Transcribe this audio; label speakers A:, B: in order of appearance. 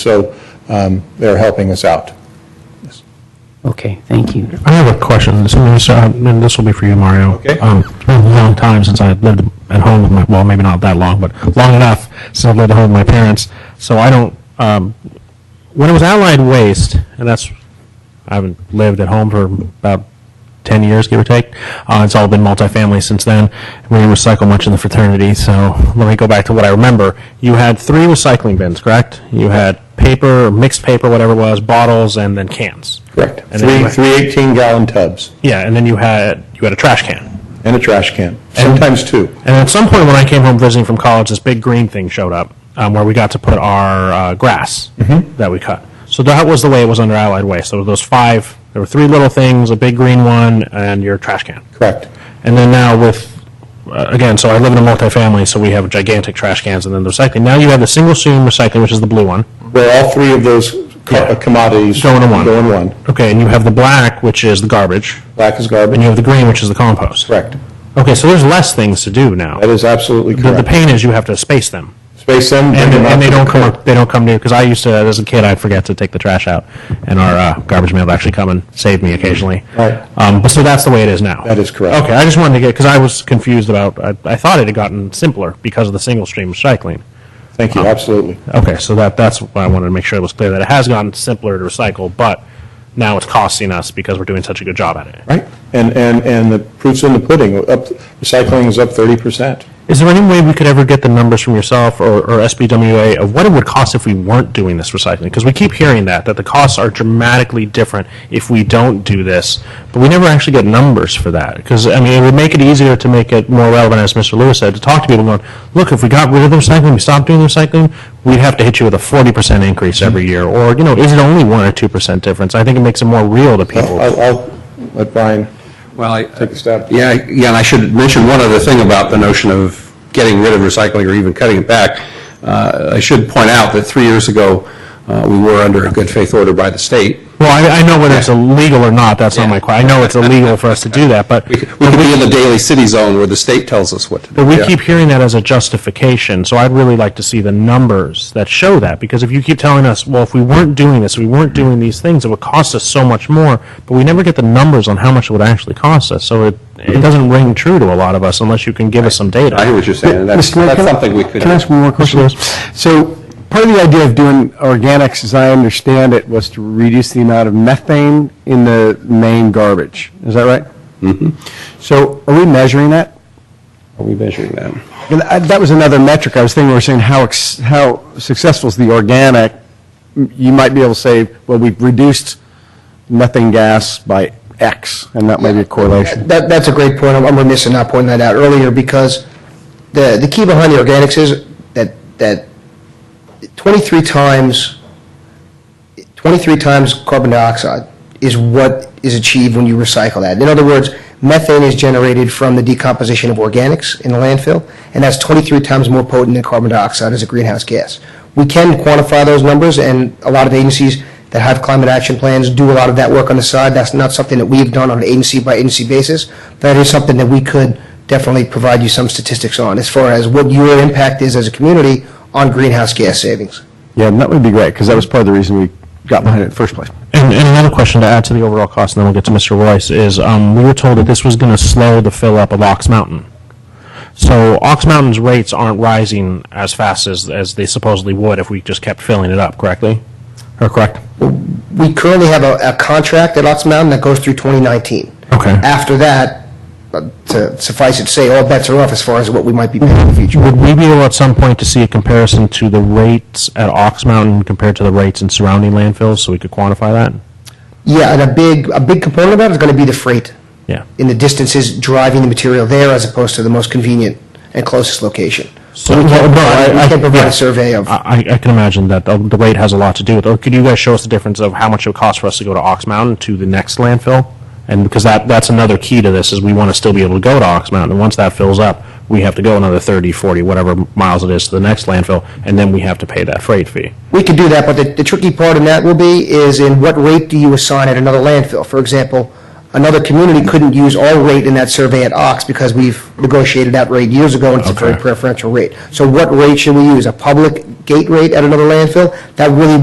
A: So um, they're helping us out.
B: Okay, thank you.
C: I have a question, So this, uh, and this will be for you, Mario.
A: Okay.
C: Um, It's been a long time since I lived at home with my, well, maybe not that long, but long enough since I've lived at home with my parents, so I don't, um, when it was outlined waste, and that's, I haven't lived at home for about 10 years, give or take, uh, it's all been multifamily since then, we didn't recycle much in the fraternity, so let me go back to what I remember. You had three recycling bins, correct? You had paper, mixed paper, whatever it was, bottles, and then cans.
A: Correct.
C: And then
A: Three,
C: you-
A: three 18-gallon tubs
C: yeah, and then you had you had a trash can.
A: and a trash can, sometimes two.
C: And at some point, when I came home visiting from college, this big green thing showed up um, where we got to put our uh, grass
A: Mm-hmm.
C: that we cut. So that was the way it was under Allied Waste. There were those five. There were three little things: a big green one and your trash can.
A: Correct.
C: And then now with uh, again, so I live in a multifamily, so we have gigantic trash cans and then the recycling. Now you have the single stream recycling, which is the blue one.
A: Where all three of those co-
C: Yeah.
A: commodities.
C: Go into one.
A: Go in one.
C: Okay, and you have the black, which is the garbage,
A: Black is
C: and
A: garbage.
C: you have the green, which is the compost.
A: Correct.
C: Okay, so there's less things to do now.
A: That is absolutely
C: The, the
A: correct.
C: pain is you have to space them.
A: Space them. bring
C: and,
A: them out
C: and they
A: to the
C: don't come
A: curb.
C: up, they don't come near because I used to as a kid I'd forget to take the trash out and our uh, garbage man would actually come and save me occasionally
A: Right.
C: um, but so that's the way it is now
A: That is correct.
C: okay I just wanted to get because I was confused about I, I thought it had gotten simpler because of the single stream recycling
A: Thank
C: Uh-huh.
A: you, absolutely.
C: okay so that that's why I wanted to make sure it was clear that it has gotten simpler to recycle but now it's costing us because we're doing such a good job at it
A: Right. And, and, and the proof's in the pudding. Up, recycling is up 30%.
C: is there any way we could ever get the numbers from yourself or, or SBWA of what it would cost if we weren't doing this recycling? Because we keep hearing that, that the costs are dramatically different if we don't do this, but we never actually get numbers for that. Because, I mean, it would make it easier to make it more relevant, as Mr. Lewis said, to talk to people going, look, if we got rid of the recycling, we stopped doing the recycling, we'd have to hit you with a 40% increase every year. Or, you know, is it only 1% or 2% difference? I think it makes it more real to
D: Uh,
C: people.
A: I'll, I'll let Brian
E: Well, I,
A: take a stab.
E: yeah, yeah, and I should mention one other thing about the notion of getting rid of recycling or even cutting it back. Uh, I should point out that three years ago, uh, we were under a good faith order by the state.
C: Well, I, I know whether it's illegal or not, that's not my question. I know it's illegal for us to do that, but.
E: We could we could be in the daily city zone where the state tells us what to do.
C: But we
E: Yeah.
C: keep hearing that as a justification, so I'd really like to see the numbers that show that, because if you keep telling us, well, if we weren't doing this, if we weren't doing these things, it would cost us so much more, but we never get the numbers on how much it would actually cost us, so it, it doesn't ring true to a lot of us unless you can give us some data.
E: I hear what you're saying, and that's
D: Mr. Mayor,
E: that's
D: can I-
E: something we could.
D: Can I ask one more question? So part of the idea of doing organics, as I understand it, was to reduce the amount of methane in the main garbage. Is that right? Mm-hmm. So are we measuring that?
E: Are we measuring that?
D: And I- That was another metric I was thinking, we were saying how, ex- how successful is the organic? M- You might be able to say, well, we've reduced methane gas by X, and that might be a correlation.
F: That, that's a great point. I'm I'm remiss in not pointing that out earlier because the, the key behind the organics is that, that 23 times, 23 times carbon dioxide is what is achieved when you recycle that. In other words, methane is generated from the decomposition of organics in the landfill, and that's 23 times more potent than carbon dioxide as a greenhouse gas. We can quantify those numbers, and a lot of agencies that have climate action plans do a lot of that work on the side. That's not something that we've done on an agency-by-agency basis. That is something that we could definitely provide you some statistics on, as far as what your impact is as a community on greenhouse gas savings.
D: Yeah, and that would be great, because that was part of the reason we got behind it in the first place.
C: And, and another question to add to the overall cost, and then we'll get to Mr. Royce, is um, we were told that this was going to slow the fill up of Ox Mountain. So Ox Mountain's rates aren't rising as fast as, as they supposedly would if we just kept filling it up, correctly? Or correct?
F: We currently have a, a contract at Ox Mountain that goes through 2019.
C: Okay.
F: After that, uh, to suffice it to say, all bets are off as far as what we might be paying in the future.
C: Would we be able at some point to see a comparison to the rates at Ox Mountain compared to the rates in surrounding landfills so we could quantify that?
F: Yeah, and a big, a big component of that is going to be the freight
C: Yeah.
F: in the distances driving the material there as opposed to the most convenient and closest location.
C: So
F: we
C: well,
F: can
C: no,
F: provide,
C: I- I-
F: we can provide
C: yeah.
F: a survey of.
C: I, I- I can imagine that the, the rate has a lot to do with it. Could you guys show us the difference of how much it would cost for us to go to Ox Mountain to the next landfill? And because that, that's another key to this, is we want to still be able to go to Ox Mountain. And once that fills up, we have to go another 30, 40, whatever miles it is to the next landfill, and then we have to pay that freight fee.
F: We could do that, but the, the tricky part in that will be is in what rate do you assign at another landfill? For example, another community couldn't use our rate in that survey at Ox because we've negotiated that rate years ago and it's a very
C: Okay.
F: preferential rate. So what rate should we use? A public gate rate at another landfill? That really